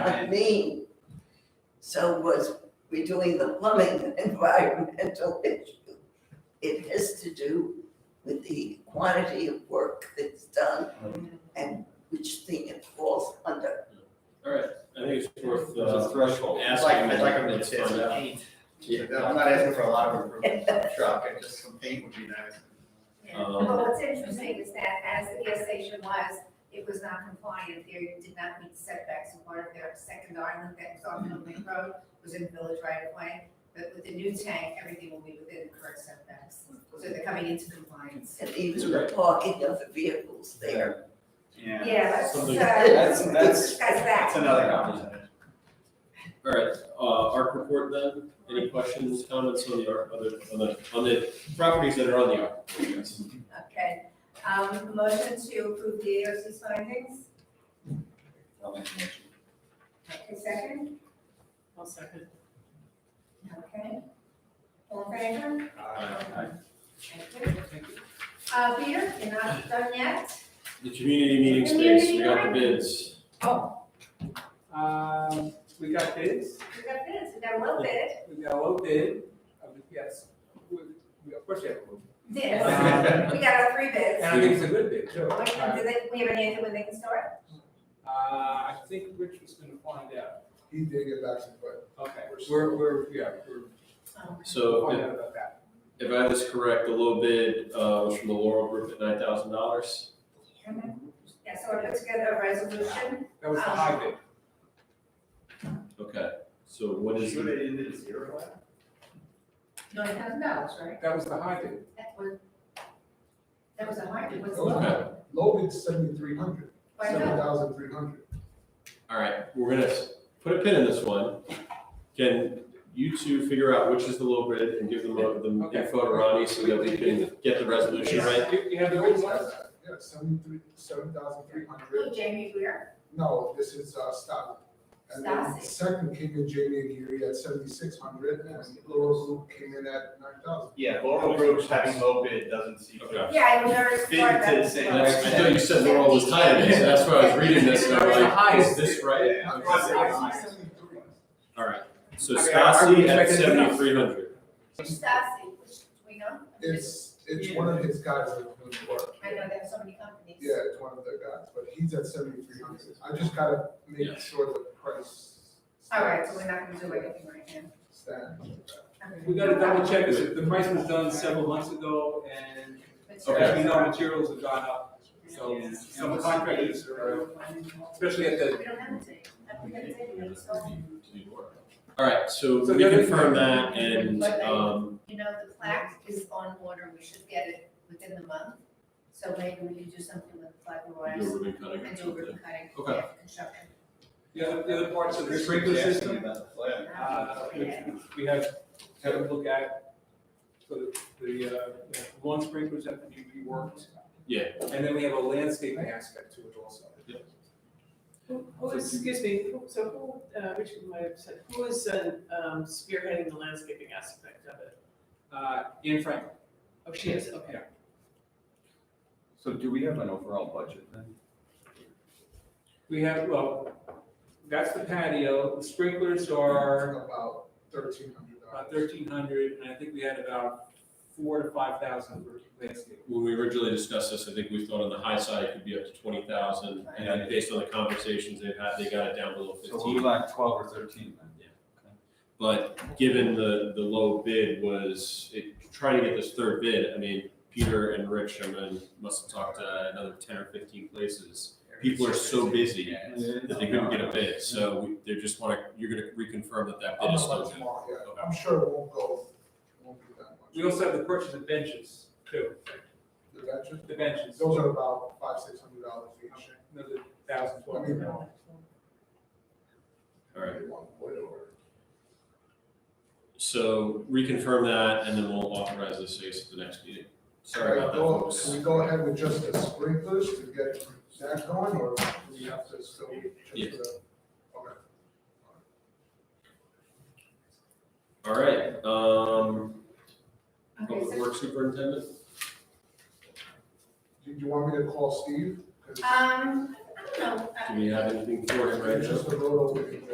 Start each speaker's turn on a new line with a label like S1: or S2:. S1: I mean, so was we doing the plumbing an environmental issue? It has to do with the quantity of work that's done and which thing it falls under.
S2: Alright, I think it's worth,
S3: There's a
S2: uh,
S3: threshold.
S2: asking.
S4: like, I'd like them to
S2: Let's
S4: say
S2: find out.
S4: paint.
S3: Yeah.
S4: I'm not asking for a lot of improvement, on the truck, and just some paint would be nice.
S2: Um,
S5: Well, what's interesting is that as the gas station was, it was not compliant, they did not meet setbacks, and part of their second island that was on Middle Lake Road was in village right of way, but with the new tank, everything will be within the current setbacks, so they're coming into compliance.
S1: And even the parking of the vehicles there.
S4: Yeah.
S5: Yeah, uh,
S2: Something-
S3: That's- that's-
S5: that's that.
S4: That's another conversation.
S2: alright, uh, ARC report then, any questions, comments on the ARC, other, on the, on the properties that are on the ARC? I guess?
S5: Okay, um, motion to approve the AOC's findings,
S4: I'll make a motion.
S5: okay, second,
S6: I'll second.
S5: okay. All in favor?
S4: Aye.
S5: Thank you. Uh, Peter, you're not done yet?
S2: The community meeting space, we got the bids,
S5: Oh.
S6: Um, we got bids,
S5: We got bids, we got a little bit.
S6: we got a low bid, I mean, yes, we, we, of course, we have a low
S5: Yes,
S6: Um,
S5: we got our three
S6: bid.
S5: bids.
S6: And I think it's a good bid, too.
S5: When, do
S6: Uh,
S5: they, we have an idea when they can start?
S6: I think Rich was gonna find out,
S7: He did get back some, but
S6: okay, we're, we're, yeah, we're
S2: so if-
S6: finding out about that.
S2: If I have this correct, the low bid, uh, was from the Laurel Group at nine thousand dollars.
S5: Yeah, so we put together a resolution.
S6: That was the high bid,
S2: Okay, so what is
S4: Should
S2: the,
S4: it ended at zero?
S5: Nine thousand dollars, right?
S6: that was the high bid.
S5: That was, that was a hard, it was low.
S2: Okay.
S7: Logan's seventy-three hundred,
S5: Why
S7: seven
S5: not?
S7: thousand three hundred.
S2: all right, we're gonna s- put a pin in this one. Can you two figure out which is the low bid and give them uh, the
S6: Okay.
S2: info to Ronnie so that we can get the resolution right?
S6: You, you have the
S7: Logan's
S6: old
S7: got
S6: ones?
S7: that, yeah, seventy-three, seven thousand three hundred.
S5: Who, Jamie Weir?
S7: No, this is, uh, Stockton. And then
S5: Stockton.
S7: second came in Jamie and Geary at seventy-six hundred, and Laurel's Loop came in at nine thousand.
S4: Yeah, Laurel Group's having low bid doesn't seem.
S2: Okay.
S5: Yeah, I was nervous.
S4: Fitting
S5: before
S4: to the
S5: that.
S4: same
S2: That's- I thought you said Laurel was tied in, so that's why I was reading this and I'm like, is this right?
S4: Yeah.
S2: All right, so
S6: Okay, are we
S2: Stasi at
S6: expecting enough?
S2: seventy-three hundred.
S5: Which Stassi, which, we know?
S7: It's, it's one of his guys that doing the work.
S5: I know there's so many companies.
S7: Yeah, it's one of their guys, but he's at seventy-three hundred. I just gotta make
S2: Yes.
S7: sure the price.
S5: All right, so we're not gonna do anything right now.
S7: Stand.
S5: Okay.
S6: We gotta double check this, the price was done several months ago, and as
S2: Okay.
S6: we know, materials have gone up, so some contractors are, especially at the
S5: We don't have a date. I think that's it, we just don't-
S2: All right, so
S6: So
S2: we
S6: there is-
S2: confirm that and,
S5: But I-
S2: um,
S5: You know, the plaque is on order, we should get it within the month, so maybe we can do something with the plaque
S2: do a
S5: awards
S2: ribbon cutting or
S5: and do a
S2: something.
S5: ribbon cutting
S2: Okay.
S5: after construction.
S6: The other, the other parts of the
S4: This
S6: sprinkler
S4: week's asking
S6: system,
S4: about the flag.
S6: uh, which we have, have a look at. So the, the, uh, the lawn sprinklers have to be reworked.
S2: Yeah.
S6: And then we have a landscaping aspect to it also.
S8: Who who is, excuse me, who- so who, uh, Richard might have said, who is uh, um, spearheading the landscaping aspect of it?
S6: Uh, Ian Franklin.
S8: Oh, she is, okay.
S3: So do we have an overall budget then?
S6: We have, well, that's the patio, the sprinklers are
S7: About thirteen hundred dollars.
S6: about thirteen hundred, and I think we had about four to five thousand for landscaping.
S2: When we originally discussed this, I think we thought on the high side it could be up to twenty thousand, and then based on the conversations they've had, they got it down below
S3: So we
S2: fifteen.
S3: lack twelve or thirteen then?
S2: But given the, the low bid was, it, trying to get this third bid, I mean, Peter and Rich, I mean, must have talked to another ten or fifteen places. People are so busy that they couldn't get a bid, so we, they just wanna, you're gonna reconfirm that that bid
S7: I'm
S2: is
S7: not
S2: still
S7: like
S2: good.
S7: tomorrow, yeah. I'm sure it won't go, it won't be that much.
S6: We also have the purchase of benches too,
S7: The veterans,
S6: the benches,
S7: those are about five, six hundred dollars each.
S6: another thousand, twelve
S7: I
S6: hundred
S7: mean,
S6: dollars.
S2: All right,
S7: they want way over.
S2: so reconfirm that, and then we'll authorize this at the next meeting. Sorry about that,
S7: Can I go-
S2: folks.
S7: Can we go ahead with just the sprinklers to get that going, or do we have to still? just
S2: Yeah.
S7: the- Okay.
S2: All right, um,
S5: Okay,
S2: Public
S5: so,
S2: Works Superintendent?
S7: Did you want me to call Steve? 'Cause
S5: um, I don't know, I
S2: Do we have anything for it right now?
S7: Just a little,